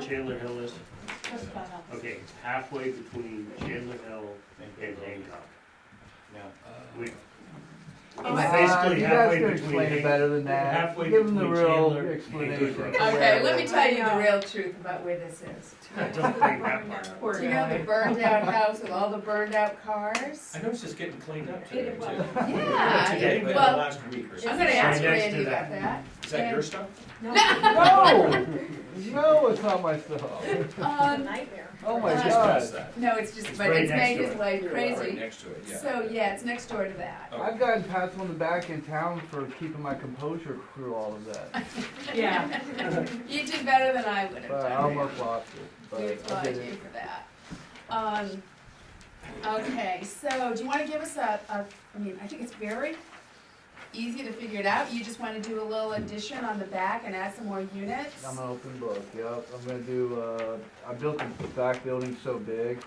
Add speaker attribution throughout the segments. Speaker 1: Chandler Hill is?
Speaker 2: Just about half.
Speaker 1: Okay, it's halfway between Chandler Hill and Hancock. We-
Speaker 2: Oh,
Speaker 1: It's
Speaker 2: Uh,
Speaker 1: basically
Speaker 3: you
Speaker 1: halfway
Speaker 3: guys can
Speaker 1: between
Speaker 3: explain it
Speaker 1: Hancock.
Speaker 3: better than that.
Speaker 1: halfway
Speaker 3: Give them the
Speaker 1: between
Speaker 3: real
Speaker 1: Chandler and
Speaker 3: explanation.
Speaker 1: Goodrich.
Speaker 4: Okay, let me tell you
Speaker 2: I
Speaker 4: the
Speaker 2: know.
Speaker 4: real truth about where this is.
Speaker 1: I don't think that part. out.
Speaker 2: Poor
Speaker 4: Do you
Speaker 5: uh,
Speaker 4: know
Speaker 2: guy.
Speaker 4: the burned out house with all the burned out cars?
Speaker 6: I noticed it's getting cleaned up
Speaker 2: It
Speaker 6: today,
Speaker 2: was.
Speaker 6: too.
Speaker 4: Yeah.
Speaker 6: Today,
Speaker 4: it-
Speaker 6: but the
Speaker 4: Well,
Speaker 6: last week or so.
Speaker 4: I'm gonna
Speaker 1: Right
Speaker 4: ask
Speaker 1: next to
Speaker 4: Randy
Speaker 1: that.
Speaker 4: about that.
Speaker 6: Is that your stuff?
Speaker 2: No,
Speaker 3: No, no, it's not my stuff.
Speaker 4: Um,
Speaker 2: nightmare.
Speaker 3: Oh my
Speaker 4: Just
Speaker 3: god.
Speaker 4: no, it's just,
Speaker 1: It's
Speaker 4: but
Speaker 1: right
Speaker 4: it's
Speaker 1: next
Speaker 4: made
Speaker 1: to
Speaker 4: his
Speaker 1: it.
Speaker 4: life
Speaker 6: Right
Speaker 4: crazy.
Speaker 6: next to it, yeah.
Speaker 4: So, yeah, it's next door to that.
Speaker 3: I've gotten pats on the back in town for keeping my composure through all of that,
Speaker 5: Um,
Speaker 2: Yeah.
Speaker 4: You did better than I would have
Speaker 3: but I
Speaker 4: done.
Speaker 3: almost lost it,
Speaker 4: We
Speaker 3: but I
Speaker 4: applaud
Speaker 3: did
Speaker 4: you
Speaker 3: it.
Speaker 4: for that. Um, okay, so do you wanna give us a, a, I mean, I think it's very easy to figure it out. You just wanna do a little addition on the back and add some more units?
Speaker 3: I'm an open book, yep. I'm gonna do, uh, I built the back building so big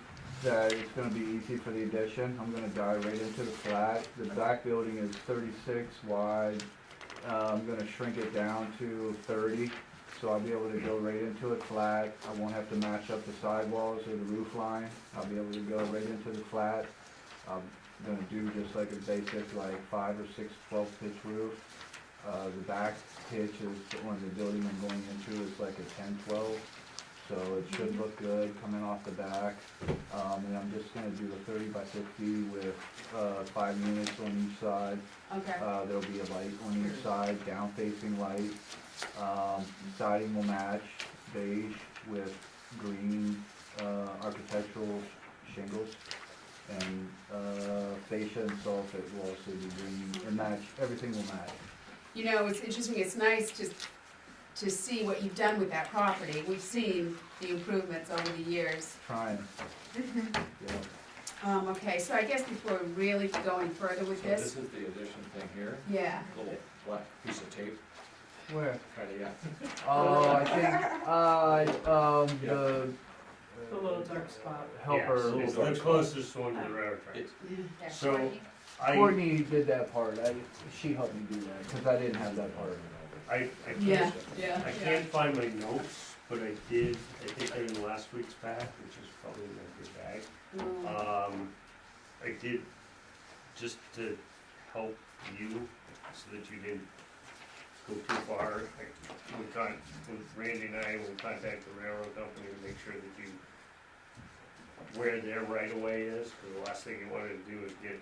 Speaker 3: that it's gonna be easy for the addition. I'm gonna dive right into the flat. The back building is thirty-six wide. Uh, I'm gonna shrink it down to thirty, so I'll be able to go right into it flat. I won't have to match up the sidewalls or the roof line. I'll be able to go right into the flat. I'm gonna do just like a basic, like five or six twelve pitch roof. Uh, the back pitch is, on the building I'm going into is like a ten twelve, so it should look good coming off the back. Um, and I'm just gonna do a thirty by fifty with, uh, five units on each side.
Speaker 4: Okay,
Speaker 3: Uh, there'll be a light on each side, down facing light. Um, siding will match beige with green, uh, architectural shingles. And, uh, fascia and soffit will also be green, or match, everything will match.
Speaker 4: you know, it's interesting, it's nice to, to see what you've done with that property. We've seen the improvements over the years.
Speaker 3: Trying.
Speaker 2: Mm-hmm.
Speaker 3: Yeah.
Speaker 4: Um, okay, so I guess before really going further with
Speaker 6: So this is
Speaker 4: this,
Speaker 6: the addition thing here,
Speaker 4: yeah,
Speaker 6: little black piece of tape,
Speaker 3: Where?
Speaker 6: kind of, yeah.
Speaker 3: Oh, I think, uh, um, the. uh,
Speaker 2: The little dark spot.
Speaker 3: Helper.
Speaker 1: Yes, It's the closest one to the railroad track.
Speaker 4: yeah.
Speaker 1: So I,
Speaker 3: Courtney did that part. I, she helped me do that, cause I didn't have that part.
Speaker 1: I, I
Speaker 4: Yeah,
Speaker 1: can't,
Speaker 4: yeah.
Speaker 1: I
Speaker 4: yeah.
Speaker 1: can't find my notes, but I did, I think they're in last week's pack, which is probably in my bag.
Speaker 4: Mm.
Speaker 1: Um, I did, just to help you, so that you didn't go too far, I, we con, with Randy and I, we'll contact the railroad company to make sure that you, where their right of way is, cause the last thing you wanted to do is get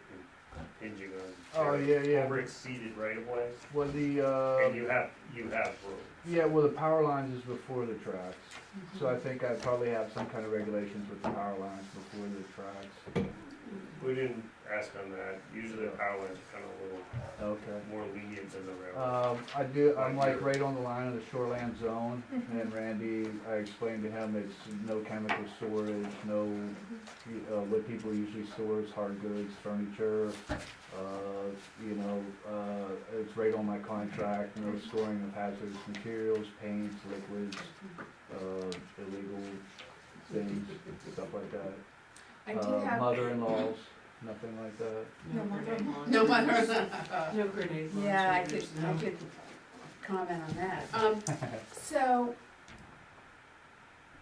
Speaker 1: impinging on.
Speaker 3: Oh, yeah, yeah.
Speaker 1: Over exceeded right of way,
Speaker 3: Well, the, uh,
Speaker 1: and you have, you have room.
Speaker 3: yeah, well, the power lines is before the tracks. So
Speaker 2: Mm-hmm.
Speaker 3: I think I probably have some kind of regulations with the power lines before the tracks.
Speaker 1: We didn't ask on that, usually the power lines are kinda a little
Speaker 3: Okay.
Speaker 1: more lenient than the railroad.
Speaker 3: Um, I do, I'm
Speaker 1: Right
Speaker 3: like right on the line of the shoreland zone,
Speaker 4: Mm-hmm.
Speaker 3: and Randy, I explained to him it's no chemical storage, no, you- uh, what people usually store is hard goods, furniture, uh, you know, uh, it's right on my contract, no storing of hazardous materials, paints, liquids, uh, illegal things, stuff like that.
Speaker 4: I do
Speaker 3: Uh,
Speaker 4: have.
Speaker 3: Mother-in-laws, nothing like that.
Speaker 2: No wonder.
Speaker 4: No wonder.
Speaker 2: No grenade launchers.
Speaker 4: Yeah, I could, I
Speaker 2: no.
Speaker 4: could comment on that. Um, so,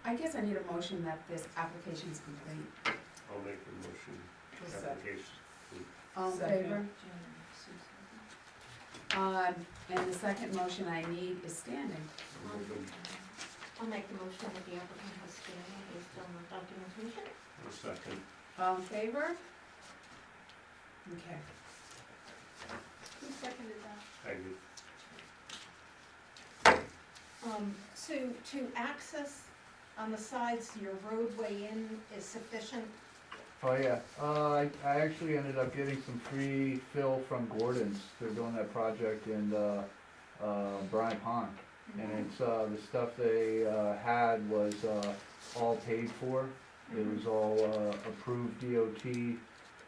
Speaker 4: I guess I need a motion that this application is complete.
Speaker 1: I'll make the motion, application.
Speaker 4: All in
Speaker 2: Second.
Speaker 4: favor? Um, and the second motion I need is standing.
Speaker 5: I'll make the motion that the applicant has standing based on the documentation.
Speaker 1: A second.
Speaker 4: All in favor? Okay.
Speaker 5: Who seconded that?
Speaker 1: I do.
Speaker 5: Um, so to access on the sides, your roadway in is sufficient?
Speaker 3: Oh, yeah. Uh, I, I actually ended up getting some free fill from Gordon's. They're doing that project in, uh, uh, Bryant Pond. And
Speaker 5: Mm-hmm.
Speaker 3: it's, uh, the stuff they, uh, had was, uh, all paid for. It
Speaker 5: Mm-hmm.
Speaker 3: was all, uh, approved DOT,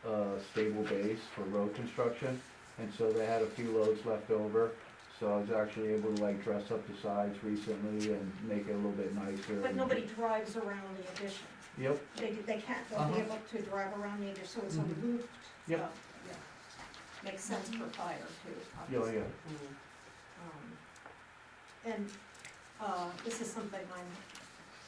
Speaker 3: uh, stable base for road construction. And so they had a few loads left over. So I was actually able to like dress up the sides recently and make it a little bit nicer.
Speaker 5: But nobody drives around the addition.
Speaker 3: Yep,
Speaker 5: They, they can't, they'll be
Speaker 3: Uh-huh.
Speaker 5: able to drive around the addition, so it's
Speaker 3: Mhm.
Speaker 1: Mm-hmm.
Speaker 5: a loop.
Speaker 3: Yep.
Speaker 5: Makes sense for fire too,
Speaker 3: yeah,
Speaker 1: oh,
Speaker 5: obviously.
Speaker 3: yeah.
Speaker 5: Um, And, uh, this is something I'm